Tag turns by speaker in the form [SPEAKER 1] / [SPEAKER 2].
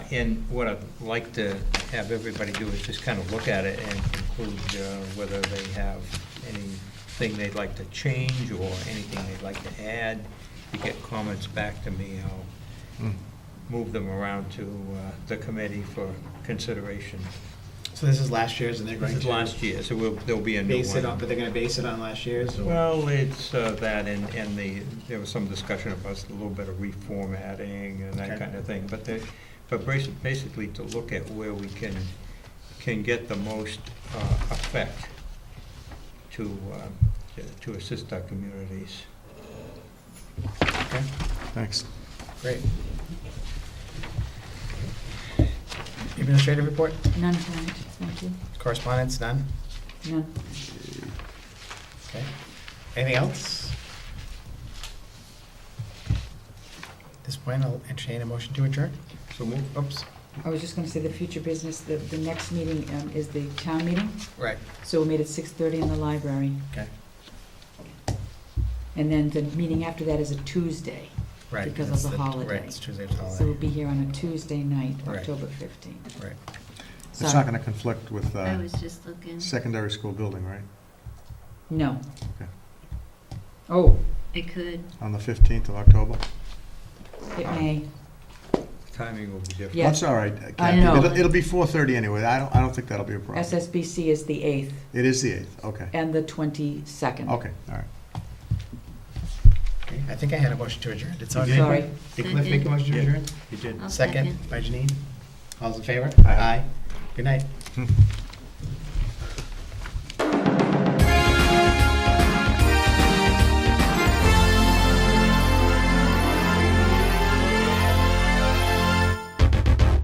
[SPEAKER 1] And what I'd like to have everybody do is just kind of look at it and conclude uh, whether they have anything they'd like to change or anything they'd like to add. If you get comments back to me, I'll move them around to uh, the committee for consideration.
[SPEAKER 2] So this is last year's and they're
[SPEAKER 1] This
[SPEAKER 2] going
[SPEAKER 1] is
[SPEAKER 2] to.
[SPEAKER 1] last year, so we'll- there'll be a new one.
[SPEAKER 2] Base it on, but they're gonna base it on last year's or?
[SPEAKER 1] Well, it's uh, that, and, and the, there was some discussion about a little bit of reformatting and that
[SPEAKER 2] Okay.
[SPEAKER 1] kind of thing, but the, but basi- basically to look at where we can, can get the most uh, effect to, um, to- to assist our communities.
[SPEAKER 2] Okay,
[SPEAKER 3] Thanks.
[SPEAKER 2] great. Administrative report,
[SPEAKER 4] None tonight, thank you.
[SPEAKER 2] correspondence, none,
[SPEAKER 4] None.
[SPEAKER 2] okay. Anything else? At this point, I'll entertain a motion to adjourn.
[SPEAKER 1] So move.
[SPEAKER 2] Oops,
[SPEAKER 4] I was just gonna say the future business, the, the next meeting um, is the town meeting,
[SPEAKER 2] right,
[SPEAKER 4] so we made it six thirty in the library.
[SPEAKER 2] Okay.
[SPEAKER 4] And then the meeting after that is a Tuesday,
[SPEAKER 2] right.
[SPEAKER 4] Because of
[SPEAKER 2] it's
[SPEAKER 4] the holiday.
[SPEAKER 2] Oh, Right, it's Tuesday's holiday.
[SPEAKER 4] so we'll be here on a Tuesday night,
[SPEAKER 2] Right.
[SPEAKER 4] October fifteenth.
[SPEAKER 2] Right.
[SPEAKER 3] It's not going to conflict with
[SPEAKER 5] I
[SPEAKER 3] uh,
[SPEAKER 5] was just looking.
[SPEAKER 3] secondary school building, right?
[SPEAKER 4] No.
[SPEAKER 3] Okay.
[SPEAKER 4] Oh,
[SPEAKER 5] It could.
[SPEAKER 3] On the 15th of October?
[SPEAKER 4] it may,
[SPEAKER 1] Timing will be different.
[SPEAKER 4] Yeah.
[SPEAKER 3] That's all right.
[SPEAKER 4] I
[SPEAKER 3] Kathy.
[SPEAKER 4] know.
[SPEAKER 3] It'll- It'll be 4:30 anyway. I don't, I don't think that'll be a problem.
[SPEAKER 4] SSBC is the eighth
[SPEAKER 3] It is the 8th, okay.
[SPEAKER 4] and the twenty-second.
[SPEAKER 3] Okay, all right.
[SPEAKER 2] Okay, I think I had a motion to adjourn, did someone?
[SPEAKER 4] Sorry.
[SPEAKER 2] Did Cliff make a motion to
[SPEAKER 1] Yeah.
[SPEAKER 2] adjourn?
[SPEAKER 1] You did.
[SPEAKER 5] I'll
[SPEAKER 2] Second by Janine. All's in favor?
[SPEAKER 3] Aye.
[SPEAKER 2] Good night.